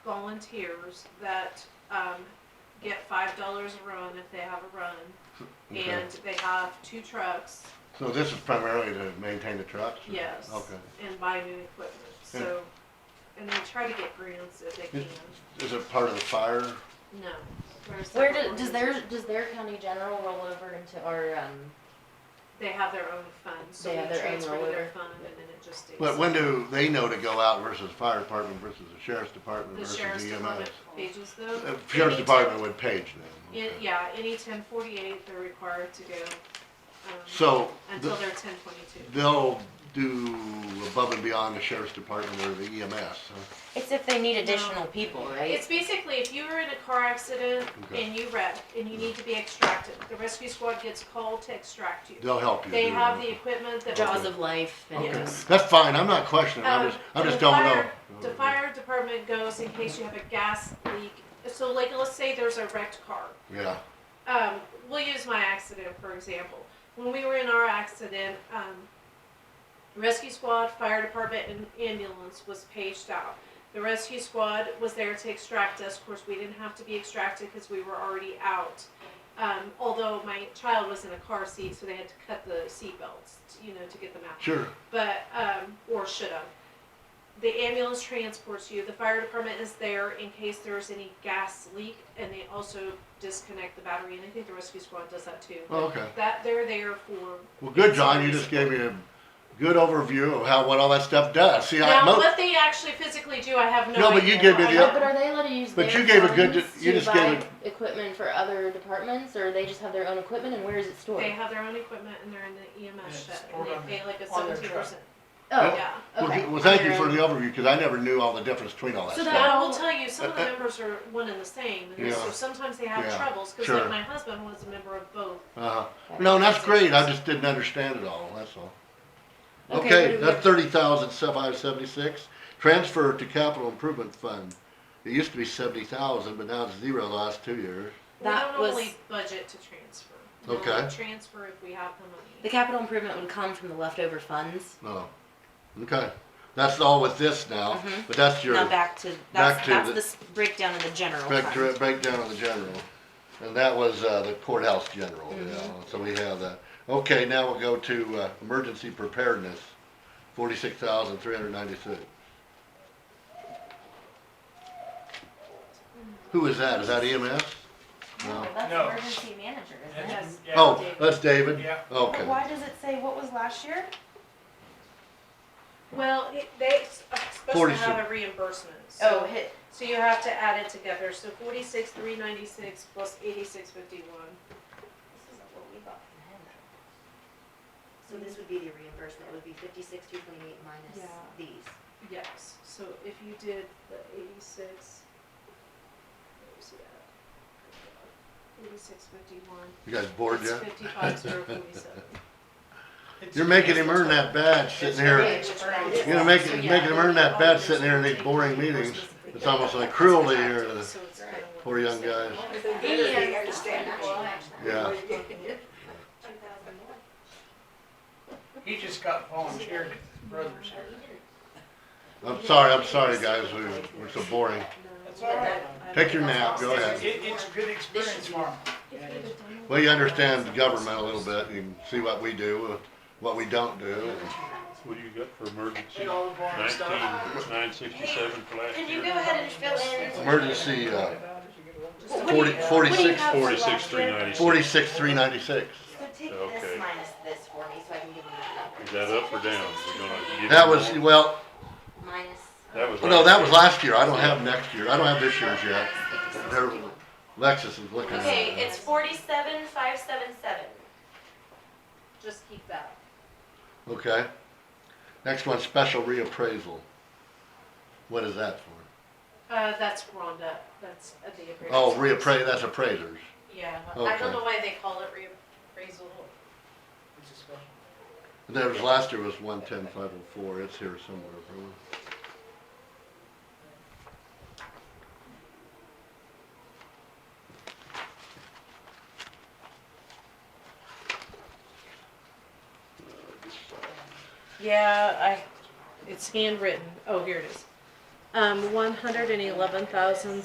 volunteers that um, get five dollars a run if they have a run, Okay. and they have two trucks. So this is primarily to maintain the trucks? or- Yes. Okay. And buy new equipment. So, and they try to get grants if they can. Is- Is it part of the fire? No. we're a Where separate do, does their, organization. does their county general roll over into our, um, They have their own fund, so They we have their own transfer to their roller. fund, and then it just stays. But when do they know to go out versus fire department versus the sheriff's department The versus sheriff's the EMS? department pages though. Uh, they Sheriff's need to- department would page them. in- okay. Yeah, any ten forty-eight, they're required to go. um, So Until the- they're ten twenty-two. they'll do above and beyond the sheriff's department or the EMS, huh? it's if they need additional people, right? It's basically if you were in a car accident Okay. and you wreck and you need to be extracted, the rescue squad gets called to extract you. They'll help you. They do have that. the equipment that. Jaws of life and. Okay. Yes. That's fine, I'm not questioning, I Um, just, I the just don't know. fire- The fire department goes in case you have a gas leak. So like, let's say there's a wrecked car. Yeah, um, we'll use my accident for example. When we were in our accident, um, rescue squad, fire department, and ambulance was paged out. The rescue squad was there to extract us. Of course, we didn't have to be extracted because we were already out. Um, although my child was in a car seat, so they had to cut the seatbelts, you know, to get them out. sure, But um, or should have. The ambulance transports you. The fire department is there in case there's any gas leak, and they also disconnect the battery. And I think the rescue squad does that too. Oh, okay. That they're there for. Well, good, John, you just gave me a good overview of how, what all that stuff does. See, I, now, most, what they actually physically do, I have no. No, but you idea. give me I the- don't- But are they allowed to use But their you gave a good- funds you to just gave buy Equipment for other departments, or they just have their own equipment, and where is it stored? They have their own equipment, and they're in the E EMS Yeah, shed, and stored on they pay like a on their seventeen percent. Oh, Yeah. well, okay. g- well, thank you They're for the in- overview, because I never knew all the difference between all that So stuff. that I will tell you, some of the Uh, uh, members are one and the same, and so Yeah. sometimes they have Yeah, troubles because, sure. like, my husband was a member of both. Uh-huh. No, and that's great, I just didn't understand it all, that's all. Okay, Okay, what do we that's have? thirty thousand, five seventy-six, transfer to capital improvement fund. It used to be seventy thousand, but now it's zero the last two years. That we don't was- normally budget to transfer. We Okay. only Transfer if we have the The money. capital improvement would come from the leftover funds. No, Oh, okay, that's all with this now, Mhm. but that's your Now back to, Back that's, to that's the- the s- breakdown of the general break- fund. breakdown of the general. And that was, uh, the courthouse general, you know, so we have that. Okay, now we'll go to, uh, emergency preparedness, forty-six thousand, three hundred ninety-six. Who is that? Is that E EMS? No. that's No. emergency manager, That's- yeah. Oh, that's David? Yeah. Okay. Why does it say what was last year? Well, it- they s- are supposed to 46. have a reimbursement, so, Oh, hit, so you have to add it together, so forty-six, three ninety-six plus eighty-six fifty-one. This isn't what we got from him. So this would be the reimbursement, it would be fifty-six, two twenty-eight minus Yeah. these. Yes, so if you did the eighty-six. where's it at? Eighty-six fifty-one. You guys bored It's yet? fifty-five zero forty-seven. You're making him earn that badge sitting here. You're gonna make, making him earn that badge sitting here in these boring meetings. It's almost like cruelty here to the So it's kinda what poor you're young saying. guys. Yeah. Yeah. He just got volunteered at his brother's here. I'm sorry, I'm sorry, guys, we, we're so boring. That's all right. Take your nap, go ahead. It, it's a good experience for him. Yeah, it is. Well, you understand the government a little bit, you can see what we do, uh, what we don't do. What do you got for emergency? And all the boring Nineteen, stuff. nine sixty-seven for last Can you year? go ahead and fill in? Emergency, uh, What do you- forty, what do you forty-six, have for last Forty-six, three year? ninety-six. forty-six, three ninety-six. So take Okay. this minus this for me, so I can give them that number. Is that up or down? We're gonna give you That was, more? well, Minus. That was. no, that was year. last year, I don't have next year, I don't have this year's yet. Minus 86, There- 51. Lexus is looking at Okay, it. it's forty-seven, five, seven, seven. Just keep that. Okay. Next one, special reappraisal. What is that for? Uh, that's Rhonda, that's at the appraisal. Oh, reappra, that's appraisers. Yeah, I Okay. don't know why they call it reappraisal. It's a special- There was, last year was one ten five oh four, it's here somewhere, probably. Yeah, I, it's handwritten, oh, here it is. um, one hundred and eleven thousand